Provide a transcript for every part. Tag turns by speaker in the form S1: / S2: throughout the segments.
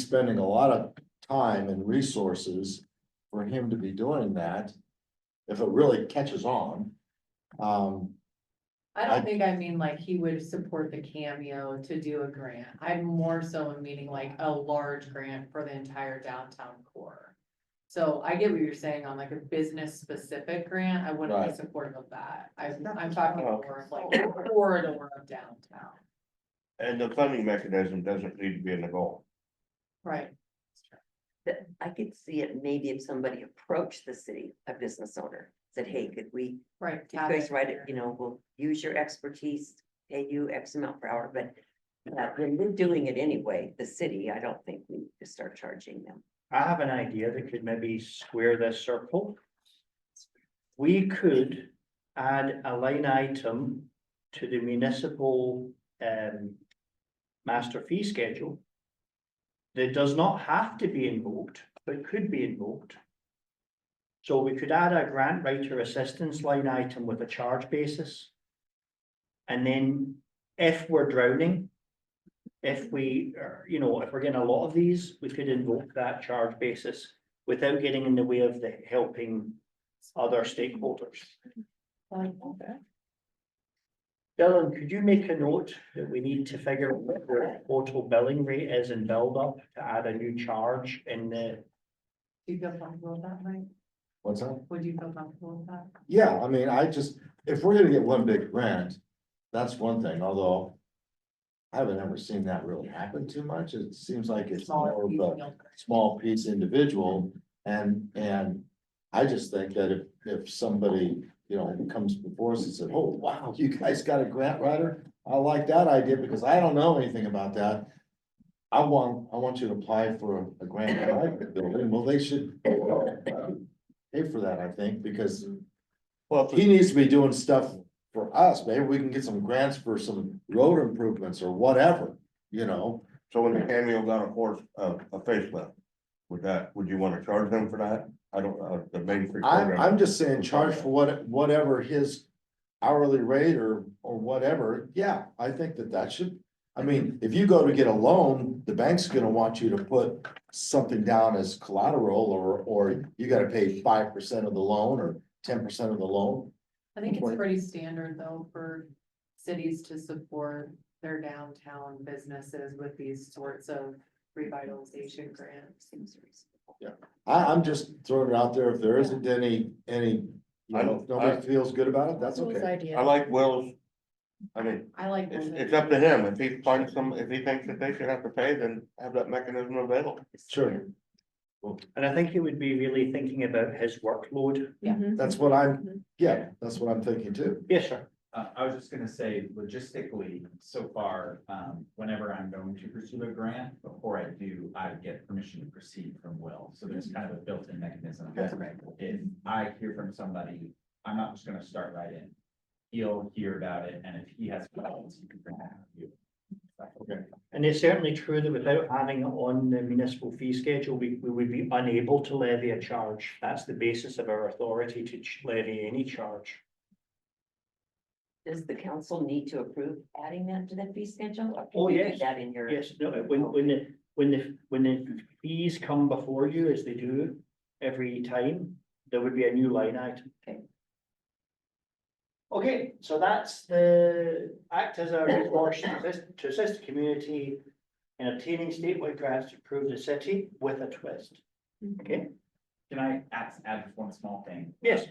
S1: spending a lot of time and resources for him to be doing that. If it really catches on. Um,
S2: I
S1: I-
S2: don't think I mean like he would support the cameo to do a grant. I'm more so meaning like a large grant for the entire downtown core. So I get what you're saying on like a business specific grant. I wouldn't be
S1: Right.
S2: supportive of that. I,
S3: It's not
S2: I'm talking
S4: Okay.
S2: more of like a corridor of downtown,
S4: And the funding mechanism doesn't need to be in the goal.
S2: right?
S3: that I could see it maybe if somebody approached the city, a business owner, said, hey, could we,
S2: Right.
S3: you guys write it, you know, we'll use your expertise, pay you X amount per hour, but uh, when we're doing it anyway, the city, I don't think we need to start charging them.
S5: I have an idea that could maybe square this circle. We could add a line item to the municipal um master fee schedule. That does not have to be invoked, but could be invoked. So we could add a grant writer assistance line item with a charge basis. And then if we're drowning, if we, are- you know, if we're getting a lot of these, we could invoke that charge basis without getting in the way of the helping other stakeholders. Dylan, could you make a note that we need to figure out what the total billing rate is in build up to add a new charge in the,
S2: Do you feel comfortable with that, Mike?
S1: what's that?
S2: Would you feel comfortable with that?
S1: Yeah, I mean, I just, if we're gonna get one big grant, that's one thing, although. I haven't ever seen that really happen too much. It seems like it's more
S2: Smaller
S1: of
S2: piece,
S1: a
S2: you'll-
S1: small piece individual and, and. I just think that if, if somebody, you know, comes before us and said, oh, wow, you guys got a grant writer? I like that idea because I don't know anything about that. I want, I want you to apply for a grant that I could build in. Well, they should. uh, Pay for that, I think, because
S4: Well,
S1: he needs to be doing stuff for us. Maybe we can get some grants for some road improvements or whatever, you know?
S4: so when the cameo got a horse, a, a facelift, would that, would you wanna charge them for that? I don't, uh, the main. free
S1: I'm,
S4: program.
S1: I'm just saying, charge for what, whatever his hourly rate or, or whatever, yeah, I think that that should. I mean, if you go to get a loan, the bank's gonna want you to put something down as collateral or, or you gotta pay five percent of the loan or ten percent of the loan.
S2: I think it's
S1: Right.
S2: pretty standard though for cities to support their downtown businesses with these sorts of revitalization grants.
S3: Seems reasonable.
S1: I, I'm just throwing it out there, if there isn't any, any, you know, if nobody feels good about it, that's okay.
S4: I like Will's. I mean,
S2: I like.
S4: it's,
S2: those
S4: it's up to him. If he finds some, if he thinks that they should have to pay, then have that mechanism available.
S1: Sure,
S5: and I think it would be really thinking about his workload.
S2: Mm-hmm.
S1: that's what I'm, yeah, that's what I'm thinking too.
S5: Yes, sir.
S6: Uh, I was just gonna say logistically, so far, um, whenever I'm going to pursue a grant, before I do, I get permission to proceed from Will. So there's kind of a built-in mechanism.
S2: That's right.
S6: If I hear from somebody, I'm not just gonna start right in. He'll hear about it, and if he has problems, he can bring that up to you.
S1: Okay.
S5: And it's certainly true that without having it on the municipal fee schedule, we, we would be unable to levy a charge. That's the basis of our authority to ch- levy any charge.
S3: Does the council need to approve adding that to the fee schedule? Or can
S5: Oh,
S3: you do
S5: yes.
S3: That in your.
S5: Yes, no, when, when the, when the, when the fees come before you, as they do every time, there would be a new line item.
S3: Okay.
S5: Okay, so that's the act as a resource to assist, to assist the community in obtaining statewide grants to improve the city with a twist. Okay,
S3: Mhm.
S6: Can I add, add just one small thing?
S5: yes,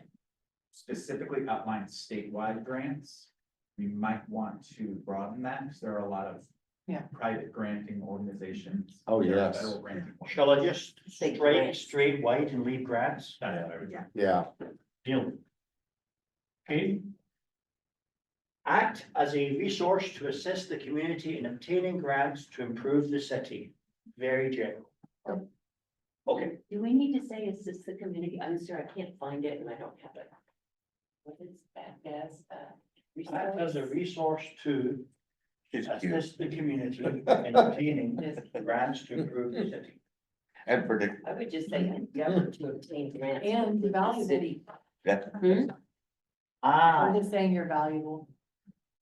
S6: specifically outline statewide grants. We might want to broaden that, because there are a lot of.
S2: Yeah.
S6: Private granting organizations.
S1: Oh,
S6: There are
S1: yes.
S6: Federal granting. organizations.
S5: shall I just
S3: Say
S5: straight,
S3: grants.
S5: straight white and leave grants?
S6: That's what I would-
S1: Yeah,
S5: Deal. Okay. Act as a resource to assist the community in obtaining grants to improve the city. Very general. Okay,
S3: Do we need to say assist the community? I'm sorry, I can't find it and I don't have it. What is that as a?
S5: act as a resource to
S4: She's cute
S5: assist the community in obtaining
S2: Yes.
S5: grants to improve the city.
S4: and predictable.
S3: I would just say endeavor to obtain grants.
S2: And
S3: from the
S2: valuable.
S3: city.
S2: I'm
S5: Ah,
S2: just saying you're valuable.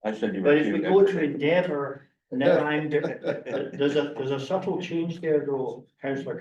S4: I said you were
S5: but if we
S4: cute.
S5: go to endeavor, Now I'm, there's a, there's a subtle change there though, councillor